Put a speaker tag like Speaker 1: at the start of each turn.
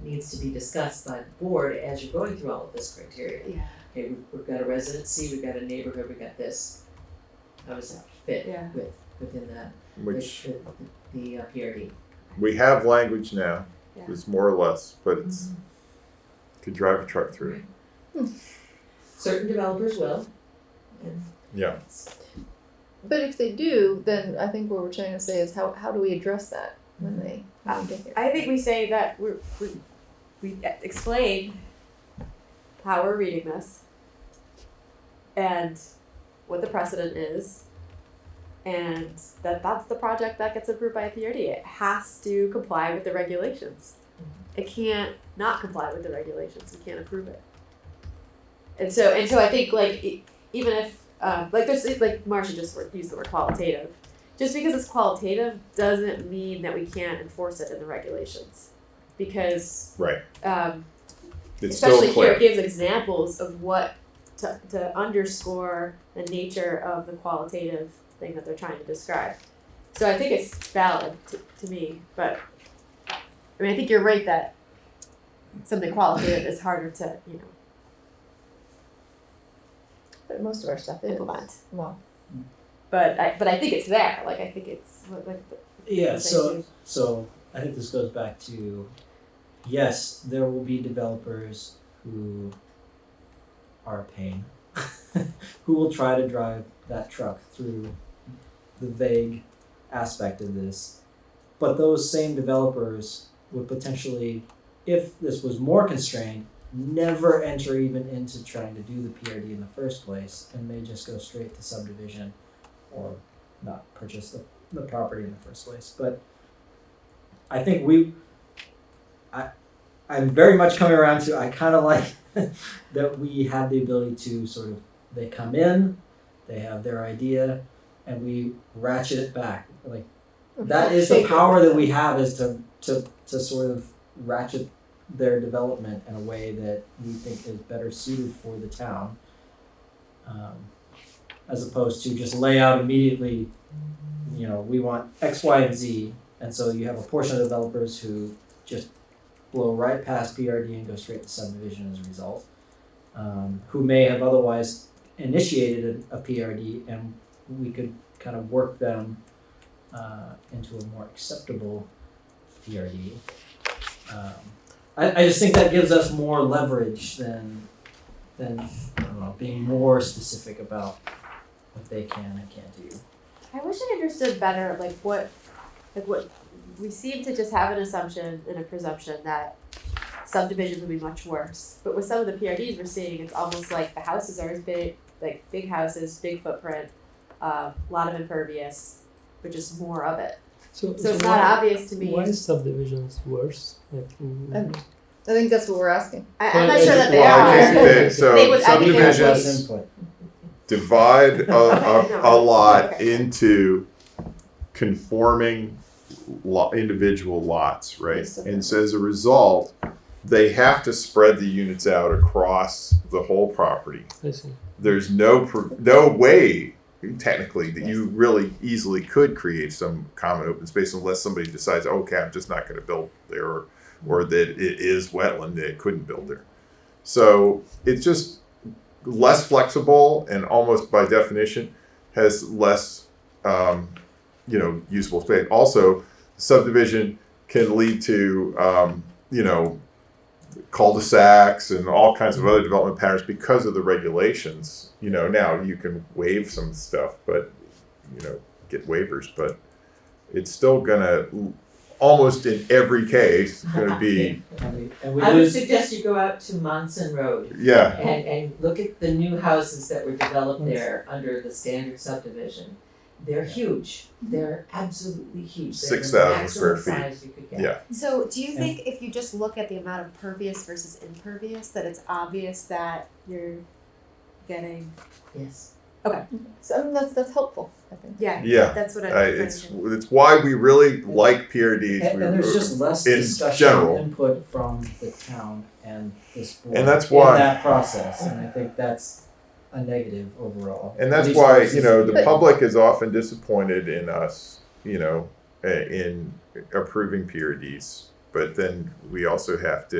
Speaker 1: needs to be discussed by the board as you're going through all of this criteria.
Speaker 2: Yeah,
Speaker 1: Okay, we- we've got a residency, we've got a neighborhood, we've got this. How does that fit
Speaker 2: Yeah.
Speaker 1: with, within that, with
Speaker 3: which
Speaker 1: the, the uh, PRD?
Speaker 3: we have language now.
Speaker 2: Yeah.
Speaker 3: It's more or less, but it's could drive a truck through. it.
Speaker 1: Certain developers will. and-
Speaker 3: Yeah.
Speaker 4: But if they do, then I think what we're trying to say is how, how do we address that when they
Speaker 2: Ah,
Speaker 4: when they get here?
Speaker 2: I think we say that we're, we we explain how we're reading this and what the precedent is, and that that's the project that gets approved by a PRD. It has to comply with the regulations. It can't not comply with the regulations. You can't approve it. And so and so I think like e- even if um, like there's like Marcia just wor- used the word qualitative just because it's qualitative doesn't mean that we can't enforce it in the regulations because
Speaker 3: Right.
Speaker 2: um,
Speaker 3: It's
Speaker 2: especially
Speaker 3: still clear.
Speaker 2: here it gives examples of what to, to underscore the nature of the qualitative thing that they're trying to describe so i think it's valid to, to me but i mean i think you're right that something qualitative is harder to you know
Speaker 4: But most of our stuff is
Speaker 2: implement
Speaker 4: well.
Speaker 2: but i but i think it's there like i think it's like
Speaker 5: Yeah,
Speaker 2: Thank
Speaker 5: so
Speaker 2: you.
Speaker 5: so I think this goes back to yes, there will be developers who are a pain who will try to drive that truck through the vague aspect of this. But those same developers would potentially, if this was more constrained, never enter even into trying to do the PRD in the first place and may just go straight to subdivision or not purchase the the property in the first place. But I think we, I, I'm very much coming around to I kind of like that we have the ability to sort of they come in, they have their idea, and we ratchet it back. Like that is the power that we have is to to to sort of ratchet their development in a way that we think is better suited for the town. Um, as opposed to just lay out immediately you know, we want X, Y, and Z. And so you have a portion of developers who just blow right past PRD and go straight to subdivision as a result, um, who may have otherwise initiated a, a PRD, and we could kind of work them uh, into a more acceptable PRD. Um, I, I just think that gives us more leverage than than I don't know, being more specific about what they can and can't do.
Speaker 2: I wish I understood better, like what, like what, we seem to just have an assumption and a presumption that subdivisions would be much worse. But with some of the PRDs we're seeing, it's almost like the houses are as big, like big houses, big footprint, um, a lot of impervious, but just more of it.
Speaker 6: So,
Speaker 2: So it's
Speaker 6: why,
Speaker 2: not Oh. obvious to me.
Speaker 6: why is subdivisions worse? Like, mm,
Speaker 4: I I think that's what we're asking.
Speaker 2: I, I'm not
Speaker 6: Well,
Speaker 2: sure that they
Speaker 3: Well, I think
Speaker 2: are.
Speaker 3: that so
Speaker 2: They would- I think they would
Speaker 3: subdivisions
Speaker 5: Input.
Speaker 3: divide a,
Speaker 2: No.
Speaker 3: a, a lot
Speaker 2: Okay.
Speaker 3: into conforming lo- individual lots, right?
Speaker 4: Yes, okay.
Speaker 3: And so as a result, they have to spread the units out across the whole property.
Speaker 6: I see.
Speaker 3: There's no pro- no way technically that you really easily could create some common open space unless somebody decides, okay, I'm just not going to build there, or, or that it is wetland that it couldn't build there. So it's just less flexible and almost by definition has less, um, you know, usable space. Also, subdivision can lead to, um, you know, cul-de-sacs and all kinds of other development patterns because of the regulations. You know, now you can waive some stuff, but you know, get waivers, but it's still gonna almost in every case gonna be
Speaker 5: And we, and we
Speaker 1: I would
Speaker 5: lose.
Speaker 1: suggest you go out to Monson Road
Speaker 3: yeah.
Speaker 1: and, and look at the new houses that were developed there under the standard subdivision. They're huge, they're absolutely huge, they're the
Speaker 3: 6,000 square
Speaker 1: maximum size you could get.
Speaker 3: Yeah.
Speaker 2: So do you
Speaker 5: And-
Speaker 2: think if you just look at the amount of pervious versus impervious, that it's obvious that you're getting,
Speaker 1: Yes.
Speaker 4: So I mean, that's that's helpful. I think.
Speaker 2: yeah,
Speaker 3: Yeah,
Speaker 2: that's what I'm
Speaker 3: Uh,
Speaker 2: trying
Speaker 3: it's
Speaker 2: to-
Speaker 3: it's why we really like PRDs.
Speaker 5: And,
Speaker 3: we,
Speaker 5: and there's just less
Speaker 3: in
Speaker 5: discussion
Speaker 3: general.
Speaker 5: input from the town and this board
Speaker 3: And that's why-
Speaker 5: in that process, and I think that's a negative overall.
Speaker 3: and
Speaker 5: At
Speaker 3: that's
Speaker 5: least
Speaker 3: why
Speaker 5: versus
Speaker 3: you know the
Speaker 4: But-
Speaker 3: public is often disappointed in us. eh, You know, uh, in approving PRDs, but then we also have to